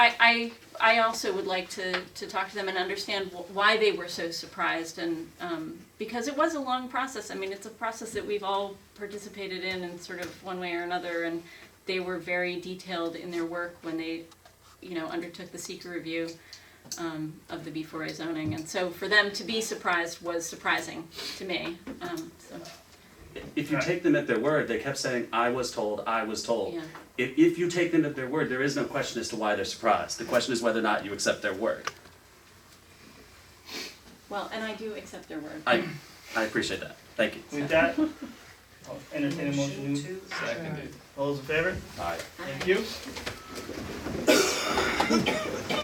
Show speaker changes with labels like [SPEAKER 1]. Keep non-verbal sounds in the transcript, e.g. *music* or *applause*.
[SPEAKER 1] I, I, I also would like to, to talk to them and understand wh- why they were so surprised and, um, because it was a long process. I mean, it's a process that we've all participated in in sort of one way or another and they were very detailed in their work when they, you know, undertook the seeker review, um, of the B four A zoning. And so for them to be surprised was surprising to me, um, so,
[SPEAKER 2] If you take them at their word, they kept saying, I was told, I was told.
[SPEAKER 1] Yeah.
[SPEAKER 2] If, if you take them at their word, there is no question as to why they're surprised. The question is whether or not you accept their word.
[SPEAKER 1] well, and I do accept their word.
[SPEAKER 2] I, I appreciate that. Thank you.
[SPEAKER 3] With *laughs* that, I'll entertain a motion. to-
[SPEAKER 4] Seconded.
[SPEAKER 3] All those in favor?
[SPEAKER 2] All right.
[SPEAKER 3] Thank you.